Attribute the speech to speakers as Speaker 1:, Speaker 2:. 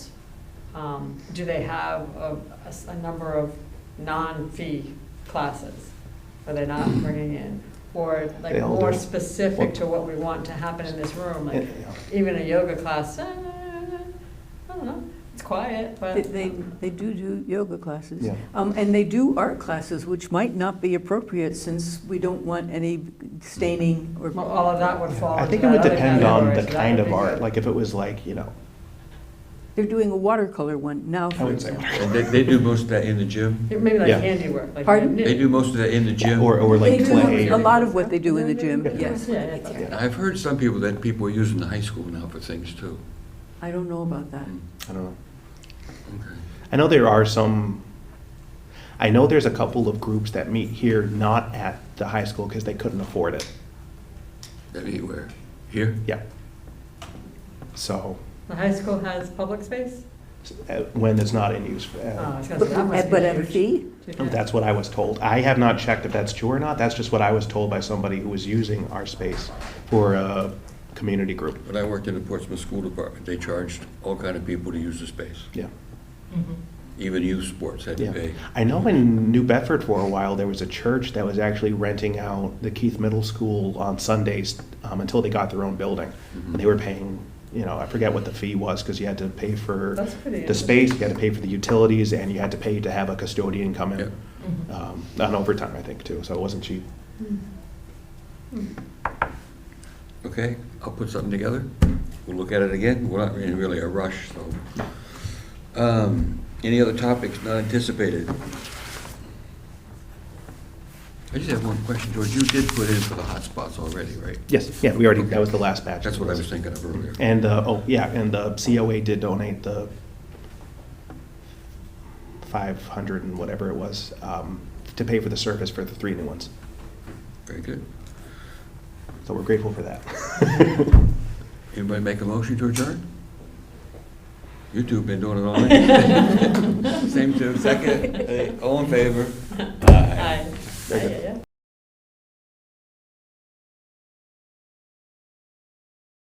Speaker 1: Um, Do they have a, a s- a number of non-fee classes that they're not bringing in? Or like
Speaker 2: They all
Speaker 1: more
Speaker 2: do.
Speaker 1: specific to what we want to happen in this room, like
Speaker 2: Yeah.
Speaker 1: even a yoga class, uh, I don't know, it's quiet,
Speaker 3: They-
Speaker 1: but.
Speaker 3: They, they do do yoga classes.
Speaker 2: Yeah.
Speaker 3: Um, And they do art classes, which might not be appropriate since we don't want any staining or.
Speaker 1: Well, All of that would fall
Speaker 2: I
Speaker 1: into
Speaker 2: think it would
Speaker 1: that other
Speaker 2: depend on
Speaker 1: category,
Speaker 2: the
Speaker 1: so that
Speaker 2: kind
Speaker 1: would
Speaker 2: of
Speaker 1: be
Speaker 2: art,
Speaker 1: good.
Speaker 2: like if it was like, you know,
Speaker 3: They're doing a watercolor one now,
Speaker 2: I
Speaker 3: for
Speaker 2: wouldn't say
Speaker 3: example.
Speaker 4: And They, they do most of that in the gym.
Speaker 1: Maybe like
Speaker 2: Yeah.
Speaker 1: handiwork, like.
Speaker 3: Pardon?
Speaker 1: knit-
Speaker 4: They do most of that in the gym.
Speaker 2: or, or like
Speaker 3: They
Speaker 2: clay.
Speaker 3: do a
Speaker 2: or-
Speaker 3: lot of what they do in the gym,
Speaker 2: Yeah.
Speaker 3: yes.
Speaker 1: Yeah, yeah.
Speaker 2: Yeah.
Speaker 4: I've heard some people that people are using the high school now for things too.
Speaker 3: I don't know about that.
Speaker 2: I don't know.
Speaker 4: Okay.
Speaker 2: I know there are some, I know there's a couple of groups that meet here, not at the high school because they couldn't afford it.
Speaker 4: Anywhere. Here?
Speaker 2: Yeah. So,
Speaker 1: The high school has public space?
Speaker 2: s- uh, when it's not in use.
Speaker 1: Oh,
Speaker 2: uh,
Speaker 1: I was gonna
Speaker 3: But
Speaker 1: say, that must be
Speaker 3: but at a
Speaker 1: huge.
Speaker 3: fee?
Speaker 1: Oh,
Speaker 2: Oh, That's what I was told. I have not checked if that's true or not. That's just what I was told by somebody who was using our space for a community group.
Speaker 4: When I worked in the Portsmouth School Department, they charged all kind of people to use the space.
Speaker 2: Yeah.
Speaker 4: Even youth sports had to
Speaker 2: Yeah.
Speaker 4: pay.
Speaker 2: I know in New Bedford for a while, there was a church that was actually renting out the Keith Middle School on Sundays um, until they got their own building. And they were paying, you know, I forget what the fee was because you had to pay for
Speaker 1: That's pretty
Speaker 2: the space, you had to pay for the utilities, and you had to pay to have a custodian come in um, on overtime, I think, too. So it wasn't cheap.
Speaker 4: Okay, I'll put something together. We'll look at it again. We're not in really a rush, so. Um, Any other topics not anticipated? I just have one question, George. You did put in for the hotspots already, right?
Speaker 2: Yes, yeah, we already, that was the last batch.
Speaker 4: That's what I was thinking of earlier.
Speaker 2: And, uh, oh, yeah, and the COA did donate the 500 and whatever it was um, to pay for the service for the three new ones.
Speaker 4: Very good.
Speaker 2: So we're grateful for that.
Speaker 4: Anybody make a motion to adjourn? You two have been doing it all night. Same two, second, eh, all in favor?
Speaker 1: 哎 Aye. Aye, yeah, yeah.